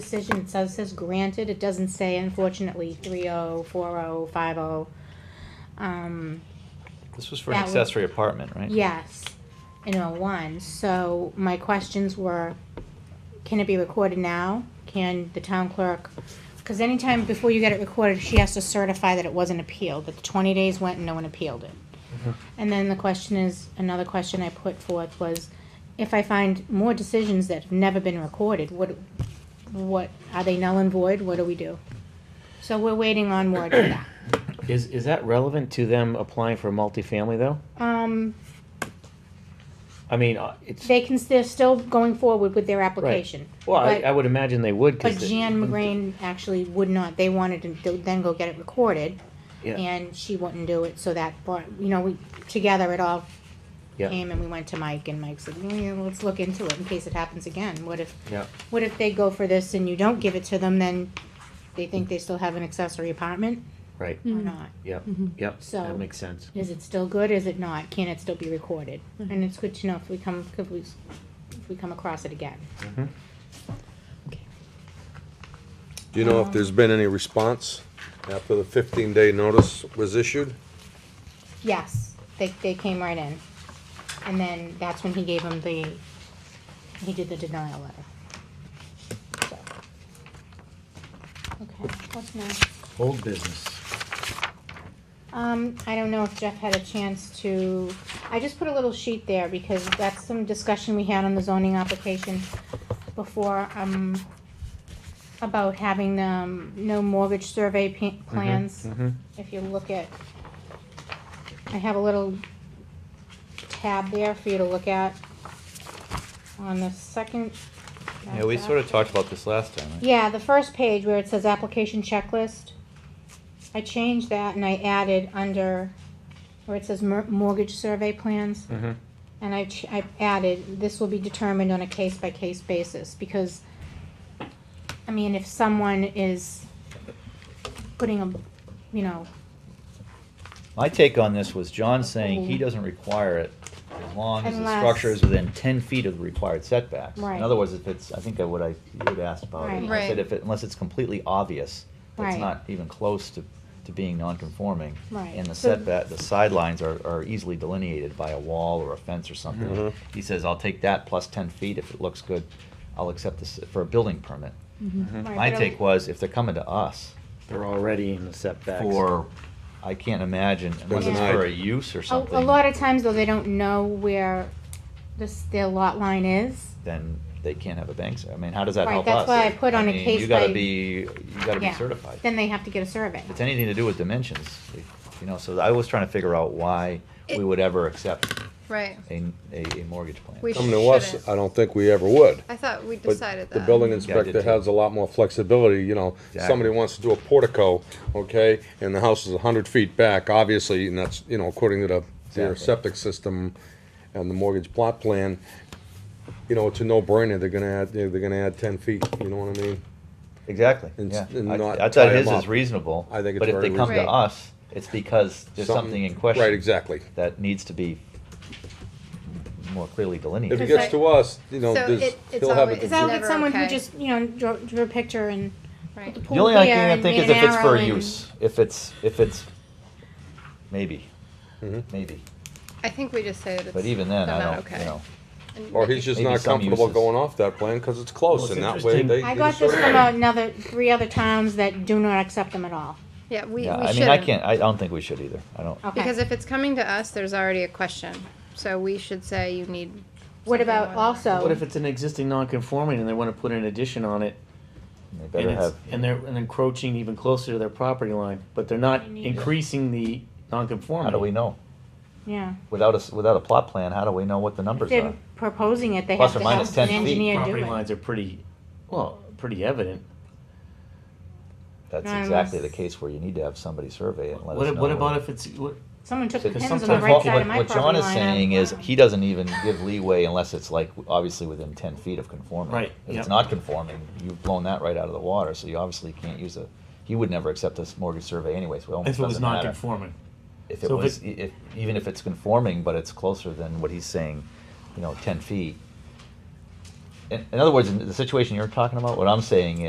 decision, it says, says granted, it doesn't say unfortunately three oh, four oh, five oh. Um, This was for an That would- accessory apartment, right? yes, in oh one, so my questions were, can it be recorded now? Can the town clerk, cause anytime before you get it recorded, she has to certify that it wasn't appealed, that the twenty days went and no one appealed it. Mm-hmm. And then the question is, another question I put forth was, if I find more decisions that have never been recorded, what, what, are they null and void, what do we do? So we're waiting on word for that. Is, is that relevant to them applying for multifamily though? Um, I mean, uh, it's, they can, they're still going forward with their application. well, I, but- I would imagine they would. 'cause But it- Jan McGrain actually would not, they wanted to do- then go get it recorded, Yeah, and she wouldn't do it, so that, brought you know, we, together it all yeah, came and we went to Mike, and Mike said, "Yeah, let's look into it in case it happens again, what if yeah. What if they go for this and you don't give it to them, then they think they still have an accessory apartment Right, Hmm. Mm-hmm. or not? yep, yep, Mm-hmm. So- that makes sense. Is it still good, is it not, can it still be recorded? And it's good to know if we come, if we, if we come across it again. Mhm. Mm-hmm. Do you know if there's been any response after the fifteen-day notice was issued? Yes, they, they came right in, and then that's when he gave him the, he did the denial letter. So. Okay, what's next? Old business. Mm-hmm. Um, I don't know if Jeff had a chance to, I just put a little sheet there because that's some discussion we had on the zoning application before, um, about having, um, no mortgage survey pa- plans. mhm. If you look at, I have a little tab there for you to look at on the second. Yeah, we sort of talked about this last time, right? Yeah, the first page where it says application checklist, I changed that and I added under where it says mor- mortgage survey plans, Mhm. and I, ch- I added, this will be determined on a case-by-case basis, because, I mean, if someone is putting a, you know, My take on this was John saying he doesn't require it as long as the Unless- structure is within ten feet of the required setbacks. Right. In other words, if it's, I think that what I, you had asked about it, and I Right. said if it, unless it's completely obvious, it's Right. not even close to, to being non-conforming. Right. And the So- setback, the sidelines are, are easily delineated by a wall or a fence or something. Mhm. He says, I'll take that plus ten feet if it looks good, I'll accept this for a building permit. Mm. Mm-hmm. Right, My but- take was, if they're coming to us They're already in the setbacks. for, I can't imagine, unless it's denied. for a use or a, something. a lot of times though, they don't know where this, their lot line is. Then they can't have a bank, ser- I mean, how does that Right, help us? that's why I put on a mean, case You gotta by- be, you gotta be Yeah. certified. Then they have to get a survey. If it's anything to do with dimensions, you know, so I was trying to figure out why we It- would ever accept Right. a, a a mortgage plan. We Come to us, Shouldn't. I don't think we ever would. I thought we But decided that. The building Um, Yeah, I did inspector too. has a lot more flexibility, you know, Exactly. somebody wants to do a portico, okay, and the house is a hundred feet back, obviously, and that's, you know, according to the, their Exactly. septic system and the mortgage plot plan, you know, it's a no-brainer, they're gonna add, they're gonna add ten feet, you know what I mean? Exactly, And yeah. s- and I- not I tie thought 'em his is up. reasonable, I but think it's if they very come to reasonable. us, it's because there's something in question. Right, exactly. That needs to be more clearly If it delineated. gets to us, you know, So there's, it- it's he'll have a always- Cause confusion. I'll get Never someone who okay. just, you know, drew, drew a picture and Right. the The pool only thing here I can and think made is an if it's arrow for and- use, if it's, if it's, maybe, Mm-hmm. maybe, I think we just say that it's. but even then, they're I not don't, okay. you know. And Or like he's if- just Maybe not some comfortable uses. going off that plan, cause it's close, Well, and it's that way they. interesting. I they got this certify from it. another, three other towns that do not accept them at all. Yeah, we, we Yeah, shouldn't. I mean, I can't, I don't think we should either, I don't, Okay. Because if it's coming to us, there's already a question, so we should say you need. What something about more than also? What if it's an existing non-conforming and they wanna put an addition on it? they And better it's, have, and they're and encroaching even closer to their property line, but they're not increasing the non-conformity. how do we know? Yeah. Without a, s- without a plot plan, how do we know what the If numbers they're are? proposing it, they Plus have to or minus have an 10 feet. engineer do Property it. lines are pretty, well, pretty evident. That's Nine exactly the months. case where you need to have somebody survey it and let us What, know. what about if it's, what, Someone took the Because pins on sometimes the right what- side of my what property John line. is saying I'm- is, he doesn't even give leeway unless it's like, obviously within ten feet of conforming. Right, If yep. it's not conforming, you've blown that right out of the water, so you obviously can't use a, he would never accept this mortgage survey anyway, so it almost if it was doesn't matter. non-conforming? If it so if was, e, it- if, even if it's conforming, but it's closer than what he's saying, you know, ten feet. In, in other words, in the situation you're talking about, what I'm saying